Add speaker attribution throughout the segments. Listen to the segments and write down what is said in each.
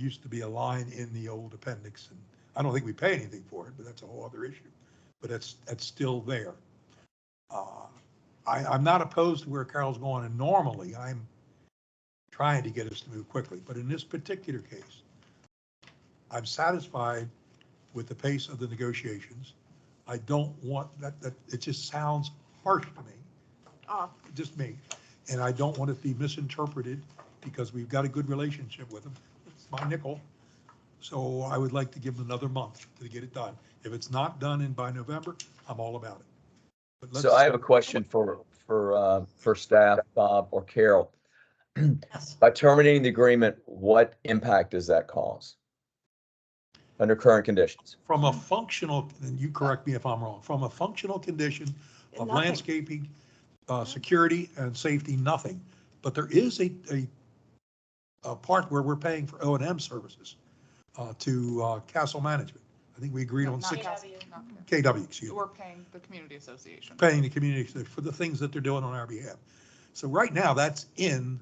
Speaker 1: used to be a line in the old appendix, and I don't think we pay anything for it, but that's a whole other issue. But it's, it's still there. Uh, I, I'm not opposed to where Carol's going, and normally I'm trying to get us to move quickly, but in this particular case, I'm satisfied with the pace of the negotiations. I don't want, that, that, it just sounds harsh to me
Speaker 2: off.
Speaker 1: just me, and I don't want it to be misinterpreted, because we've got a good relationship with them. It's my nickel, so I would like to give them another month to get it done. If it's not done in by November, I'm all about it. But let's-
Speaker 3: So I have a question for, for, uh, for staff, Bob or Carol.
Speaker 2: Yes.
Speaker 3: By terminating the agreement, what impact does that cause? Under current conditions?
Speaker 1: From a functional, and you correct me if I'm wrong, from a functional condition of
Speaker 2: Nothing.
Speaker 1: landscaping, uh, security and safety, nothing. But there is a, a, a part where we're paying for O and M services, uh, to, uh, castle management. I think we agreed on
Speaker 4: Not
Speaker 1: six,
Speaker 4: us.
Speaker 2: KW.
Speaker 1: KW, excuse me.
Speaker 4: We're paying the community association.
Speaker 1: paying the community for the things that they're doing on our behalf. So right now, that's in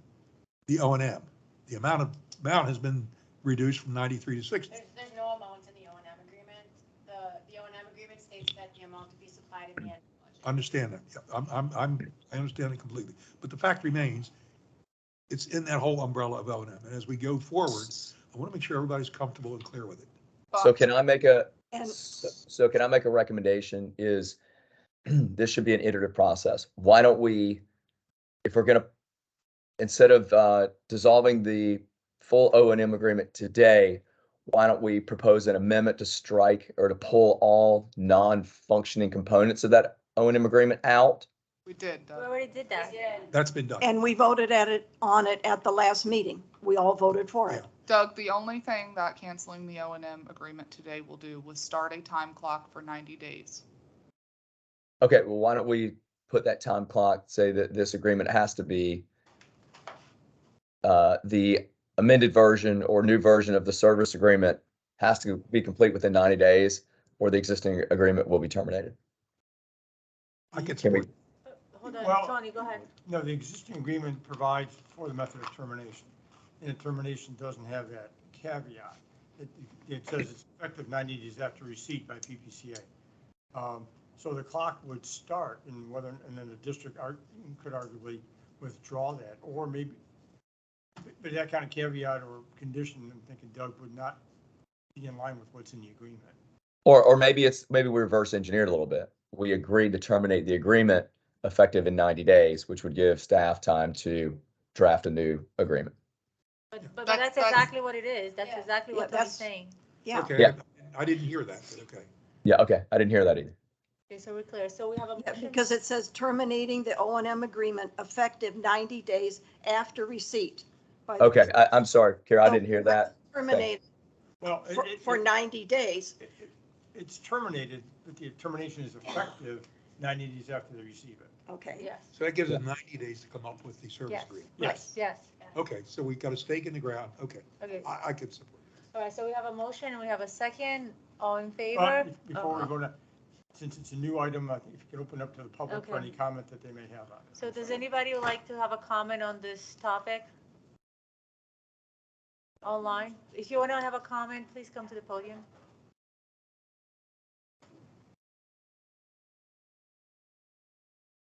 Speaker 1: the O and M. The amount of, amount has been reduced from ninety-three to sixty.
Speaker 5: There's, there's no amount in the O and M agreement. The, the O and M agreement states that the amount to be supplied in the end. of the budget.
Speaker 1: Understand that. Yeah, I'm, I'm, I'm, I understand it completely. But the fact remains, it's in that whole umbrella of O and M. And as we go forward, I want to make sure everybody's comfortable and clear with it.
Speaker 3: So
Speaker 4: But
Speaker 3: can I make a,
Speaker 2: And
Speaker 3: so so can I make a recommendation is this should be an iterative process. Why don't we, if we're gonna, instead of, uh, dissolving the full O and M agreement today, why don't we propose an amendment to strike or to pull all non-functioning components of that O and M agreement out?
Speaker 4: we did, Doug.
Speaker 6: already did that.
Speaker 5: We did.
Speaker 1: That's been done.
Speaker 2: and we voted at it, on it at the last meeting. We all voted for it.
Speaker 4: Doug, the only thing that canceling the O and M agreement today will do was start a time clock for ninety days.
Speaker 3: Okay, well, why don't we put that time clock, say that this agreement has to be uh, the amended version or new version of the service agreement has to be complete within 90 days or the existing agreement will be terminated.
Speaker 1: I can
Speaker 3: Can we-
Speaker 1: support,
Speaker 6: Hold
Speaker 2: Uh,
Speaker 7: Well-
Speaker 6: on, Tony, go ahead.
Speaker 7: No, the existing agreement provides for the method of termination. And the termination doesn't have that caveat. It, it says it's effective 90 days after receipt by PPCA. Um, So the clock would start and whether, and then the district ar- could arguably withdraw that or maybe, but that kind of caveat or condition, I'm thinking Doug would not be in line with what's in the agreement.
Speaker 3: Or, or maybe it's, maybe we reverse engineered a little bit. We agreed to terminate the agreement effective in 90 days, which would give staff time to draft a new agreement.
Speaker 6: But, but
Speaker 4: That's-
Speaker 6: that's
Speaker 4: that's-
Speaker 6: exactly what it is. That's
Speaker 5: Yeah.
Speaker 6: exactly
Speaker 2: Yeah,
Speaker 6: what Tony's
Speaker 2: that's-
Speaker 6: saying.
Speaker 2: Yeah.
Speaker 1: okay,
Speaker 3: Yeah.
Speaker 1: I didn't hear that, but okay.
Speaker 3: Yeah, okay. I didn't hear that either.
Speaker 6: Okay, so we're clear. So we have a
Speaker 2: Yeah,
Speaker 6: motion.
Speaker 2: Because it says terminating the O and M agreement effective 90 days after receipt. by the-
Speaker 3: Okay, I, I'm sorry, Kara, I didn't
Speaker 2: Oh,
Speaker 3: hear that.
Speaker 2: Terminate
Speaker 7: Well, it-
Speaker 2: for-
Speaker 7: it-
Speaker 2: for 90 days.
Speaker 7: it- it- it's terminated, but the termination is effective 90 days after they receive it.
Speaker 2: Okay.
Speaker 6: Yes,
Speaker 1: So that gives us ninety days to come up with the service
Speaker 6: Yes.
Speaker 1: agreement.
Speaker 7: Yes.
Speaker 6: yes.
Speaker 1: Okay, so we got a stake in the ground. Okay,
Speaker 6: Okay,
Speaker 1: I, I can support.
Speaker 6: all right, so we have a motion and we have a second. All in
Speaker 7: Uh,
Speaker 6: favor?
Speaker 7: be- Before we go to, since it's a new item, I think if you could open up to the public for
Speaker 6: Okay.
Speaker 7: any comment that they may have on it.
Speaker 6: So does anybody would like to have a comment on this topic? Online? If you want to have a comment, please come to the podium.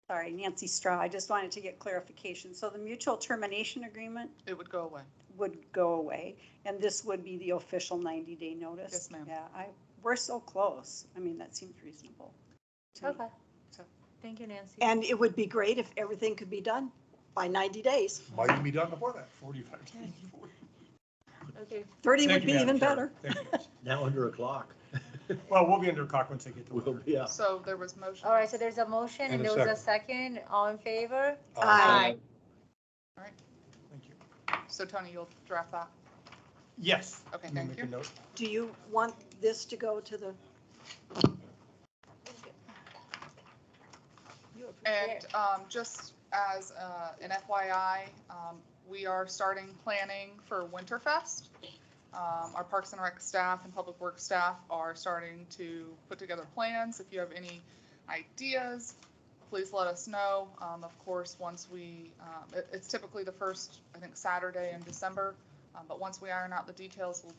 Speaker 8: Sorry, Nancy Straw, I just wanted to get clarification. So the mutual termination agreement
Speaker 4: It would go away.
Speaker 8: would go away, and this would be the official 90-day notice?
Speaker 4: Yes, ma'am.
Speaker 8: Yeah, I, we're so close. I mean, that seems reasonable. to me.
Speaker 6: Okay. Thank you, Nancy.
Speaker 2: And it would be great if everything could be done by 90 days.
Speaker 1: Might even be done before that.
Speaker 7: 45.
Speaker 6: Okay,
Speaker 2: 30 would
Speaker 7: Thank you,
Speaker 2: be
Speaker 7: Madam
Speaker 2: even
Speaker 7: Chair.
Speaker 2: better.
Speaker 7: Thank you.
Speaker 9: Now under a clock.
Speaker 7: Well, we'll be under clock once I get to
Speaker 9: We'll
Speaker 7: order.
Speaker 9: be up.
Speaker 4: So there was motion.
Speaker 6: all right, so there's a motion
Speaker 1: And
Speaker 6: and
Speaker 1: a
Speaker 6: there was a second. All in favor?
Speaker 2: Aye.
Speaker 7: Thank you.
Speaker 4: So Tony, you'll draft that.
Speaker 7: Yes.
Speaker 4: Okay,
Speaker 7: Let me
Speaker 4: thank
Speaker 7: make
Speaker 4: you.
Speaker 7: a note.
Speaker 2: Do you want this to go to the? You have-
Speaker 4: And um, just as uh, an FYI, um, we are starting planning for Winterfest. Um, Our Parks and Rec staff and Public Works staff are starting to put together plans. If you have any ideas, please let us know. Um, Of course, once we, um, it- it's typically the first, I think, Saturday in December. Um, But once we iron out the details, we'll